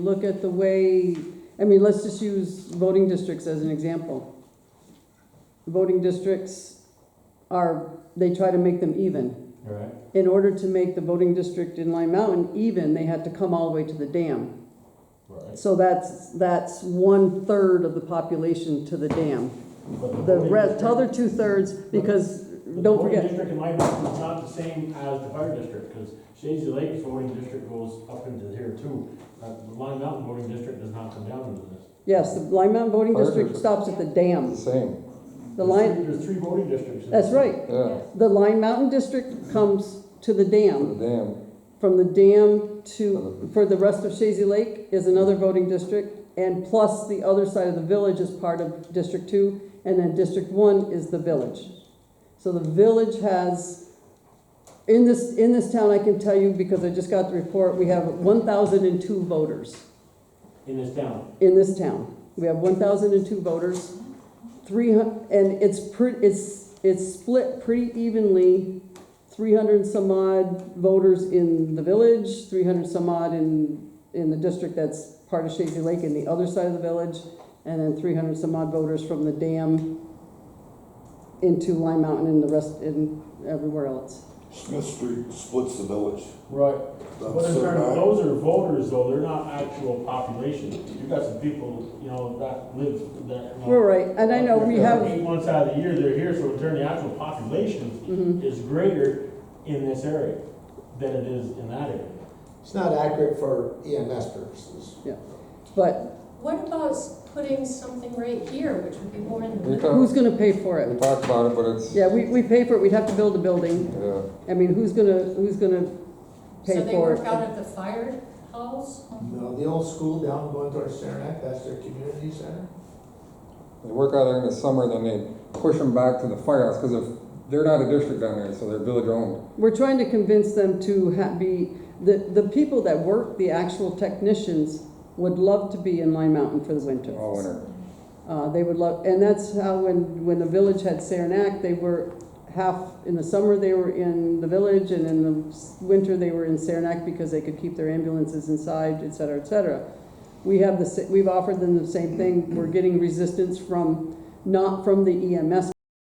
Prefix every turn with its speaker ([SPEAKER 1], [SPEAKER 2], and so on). [SPEAKER 1] Look at the way, I mean, let's just use voting districts as an example. Voting districts are, they try to make them even.
[SPEAKER 2] Right,
[SPEAKER 1] In order to make the voting district in Lime Mountain even, they had to come all the way to the dam.
[SPEAKER 2] right.
[SPEAKER 1] So that's, that's one-third of the population to the dam.
[SPEAKER 3] But
[SPEAKER 1] The
[SPEAKER 3] voting
[SPEAKER 1] rest,
[SPEAKER 3] district-
[SPEAKER 1] the other two-thirds, because,
[SPEAKER 3] but the
[SPEAKER 1] don't
[SPEAKER 3] voting
[SPEAKER 1] forget,
[SPEAKER 3] district in my district is not the same as the fire district, because Shady Lake's voting district goes up into here too. Uh, the Lime Mountain voting district does not come down into this.
[SPEAKER 1] yes, the Lime Mountain voting
[SPEAKER 4] Fire
[SPEAKER 1] district
[SPEAKER 4] district.
[SPEAKER 1] stops at the dam.
[SPEAKER 4] Same,
[SPEAKER 1] The
[SPEAKER 3] There's
[SPEAKER 1] Lime,
[SPEAKER 3] three- There's three voting districts. in
[SPEAKER 1] that's
[SPEAKER 3] this.
[SPEAKER 1] right.
[SPEAKER 4] yeah,
[SPEAKER 1] The Lime Mountain district comes to the dam.
[SPEAKER 4] the dam,
[SPEAKER 1] From the dam to, for the rest of Shazy Lake is another voting district, and plus the other side of the village is part of District Two, and then District One is the village. So the village has, in this, in this town, I can tell you, because I just got the report, we have one thousand and two voters
[SPEAKER 3] In this town.
[SPEAKER 1] in this town. We have one thousand and two voters, three hun, and it's pre, it's, it's split pretty evenly. Three hundred and some odd voters in the village, three hundred some odd in, in the district that's part of Shady Lake in the other side of the village, and then three hundred some odd voters from the dam into Lime Mountain and the rest, and everywhere else.
[SPEAKER 5] Smith Street splits the village.
[SPEAKER 2] Right,
[SPEAKER 3] But in turn, those are voters though, they're not actual population. You've got some people, you know, that live that. you know,
[SPEAKER 1] We're right, and I know we have,
[SPEAKER 3] Eight months out of the year, they're here, so in turn, the actual population
[SPEAKER 1] mhm.
[SPEAKER 3] is greater in this area than it is in that area.
[SPEAKER 6] It's not accurate for EMS purposes.
[SPEAKER 1] but
[SPEAKER 7] What about s- putting something right here, which would be more in the
[SPEAKER 4] We
[SPEAKER 7] middle?
[SPEAKER 4] talk-
[SPEAKER 1] who's gonna pay for
[SPEAKER 4] we
[SPEAKER 1] it?
[SPEAKER 4] talked about it, but it's, yeah,
[SPEAKER 1] Yeah, we, we pay for it, we'd have to build a building. I mean, who's gonna, who's gonna
[SPEAKER 7] So
[SPEAKER 1] pay
[SPEAKER 7] they
[SPEAKER 1] for
[SPEAKER 7] work out
[SPEAKER 1] it?
[SPEAKER 7] of the fire halls?
[SPEAKER 6] No, the old school down going towards Saranac, that's their community center.
[SPEAKER 4] they work out there in the summer, then they push them back to the firehouse, because if, they're not a district down there, so they're village owned.
[SPEAKER 1] We're trying to convince them to ha- be, the, the people that work, the actual technicians, would love to be in Lime Mountain for the winter.
[SPEAKER 4] All winter.
[SPEAKER 1] Uh, they would love, and that's how when, when the village had Saranac, they were half, in the summer, they were in the village, and in the s- winter, they were in Saranac because they could keep their ambulances inside, et cetera, et cetera. We have the, E sa- we've offered them the same thing, we're getting resistance from, not from the EMS